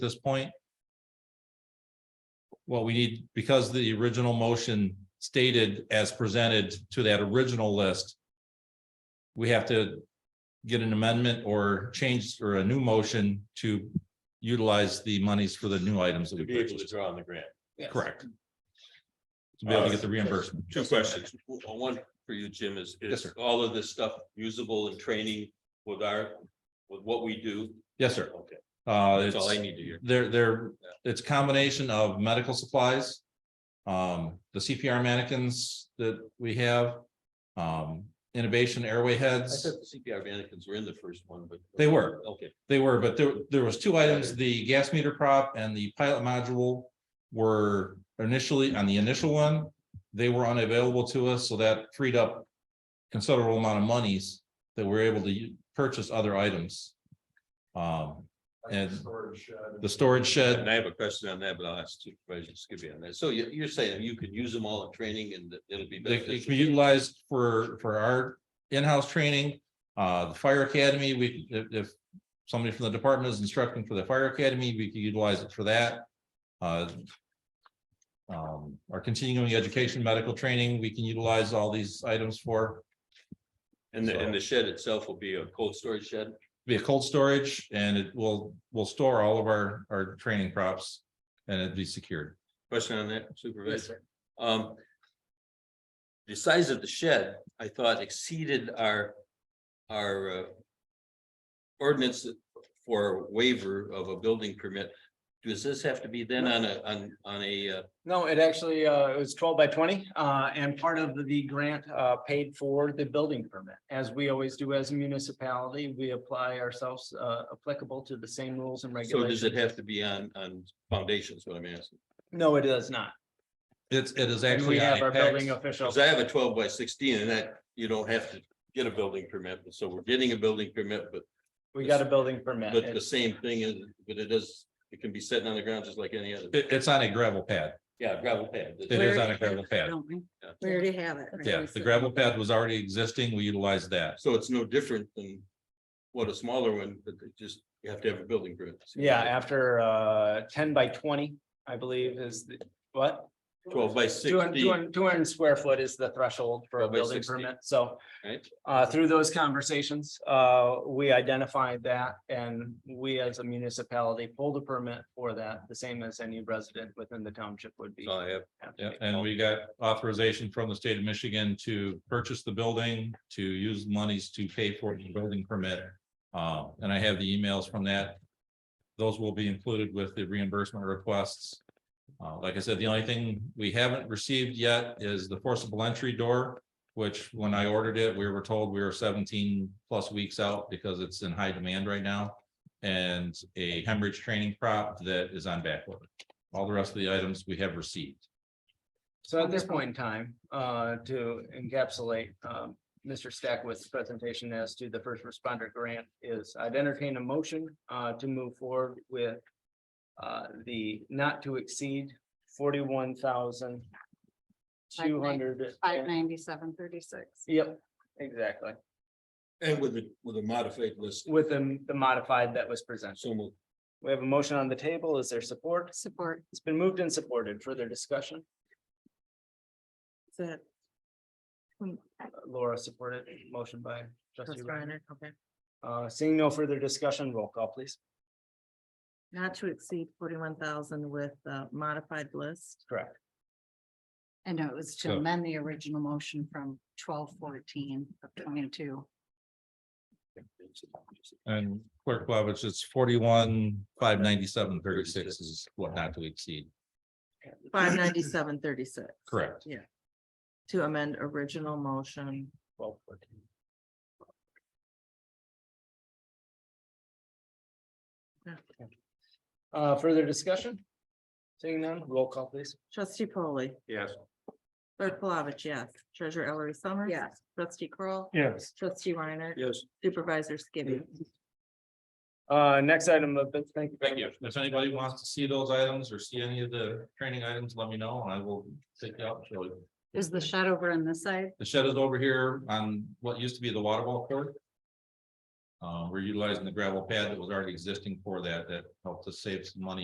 this point? Well, we need, because the original motion stated as presented to that original list. We have to get an amendment or change or a new motion to utilize the monies for the new items that we to be able to Uh, purchased. draw on the grant. Correct. To be able to get the reimbursement. Two questions. One for you, Jim, is, Yes, is sir. all of this stuff usable in training with our, with what we do? Yes, sir. Okay, Uh, that's all it's- I need to hear. They're, they're, it's a combination of medical supplies. Um, the CPR mannequins that we have. Um, innovation airway I heads, thought the CPR mannequins were in the first one, but. They were. Okay, they were, but there, there was two items, the gas meter prop and the pilot module. Were initially, on the initial one, they were unavailable to us, so that freed up. Considerable amount of monies that we're able to u- purchase other items. Um, and the storage shed, and I have a question on that, but I'll ask Supervisor Skibby on that. So you, you're saying you could use them all in training and that it'll be They it can be beneficial? utilized for, for our in-house training, uh, the fire academy, we, if, if. Somebody from the department is instructing for the fire academy, we could utilize it for that. Uh, Um, our continuing education, medical training, we can utilize all these items for, And the, and the shed itself will be a cold storage shed? be a cold storage and it will, will store all of our, our training props. And it'd be secured. Question on that, Supervisor? Um. The size of the shed, I thought exceeded our, our. uh, Ordinance for waiver of a building permit. Does this have to be then on a, on, on a, uh, No, it actually, uh, it was twelve by twenty, uh, and part of the grant, uh, paid for the building permit. As we always do as a municipality, we apply ourselves, uh, applicable to the same rules and so does it regulations. have to be on, on foundations, what I'm asking? No, it does not. It's, it is And actually. we on have a our PAX. building official. Cause I have a twelve by sixteen and that, you don't have to get a building permit, so we're getting a building permit, but, We got a building permit. but the It's- same thing is, but it is. It can be sitting on the ground just like any other, It- it's on a gravel pad. yeah, gravel pad. It is on a gravel pad. don't we? Yeah. We already have it. right? Yeah, We the said- gravel pad was already existing. We utilized that. So it's no different than what a smaller one, but they just, you have to have a building permit. Yeah, after, uh, ten by twenty, I believe is the, what? Twelve by 200 sixteen, 200 200 square foot is the threshold for a 12 by building 16. permit, so. Right. Uh, through those conversations, uh, we identified that and we as a municipality pulled a permit for that, the same as any resident within the township would be. So I have, have to Yeah, be. and we got authorization from the state of Michigan to purchase the building, to use monies to pay for the building permit. Uh, and I have the emails from that. Those will be included with the reimbursement requests. Uh, like I said, the only thing we haven't received yet is the forcible entry door, which when I ordered it, we were told we were seventeen plus weeks out because it's in high demand right now. And a hemorrhage training prop that is on back order. All the rest of the items we have received. So at this point in time, uh, to encapsulate, um, Mr. Stackwith's presentation as to the first responder grant is I'd entertain a motion, uh, to move forward with uh, the not to exceed forty-one thousand two hundred. Five ninety-seven thirty-six. Yep, exactly, and with the, with a modified list, with the, the modified that was presented. so moved. We have a motion on the table. Is there support? Support, It's been moved and supported. Further discussion? is it? Hmm, Laura supported, motion by trustee Trustee Reiner. Reiner, okay. Uh, seeing no further discussion, roll call, please. Not to exceed forty-one thousand with the modified list. Correct. I know it was to So- amend the original motion from twelve fourteen of twenty-two. And clerk Blavich, it's forty-one, five ninety-seven, thirty-six is what not to exceed. Five ninety-seven thirty-six. Correct. Yeah. To amend original motion. Twelve fourteen. Yeah. Uh, further discussion? Seeing none, roll call, please. Trustee polley Yes. clerk Plavich, yes. Treasurer Ellery Summers. Yes. Trustee Kroll, Yes. Trustee Reiner. Yes. Supervisor Skibby. Uh, next item of, business. thank you. Thank you. If anybody wants to see those items or see any of the training items, let me know and I will take you out. and show you. Is the shed over on this side? The shed is over here on what used to be the water ball court. Uh, we're utilizing the gravel pad that was already existing for that, that helped us save some money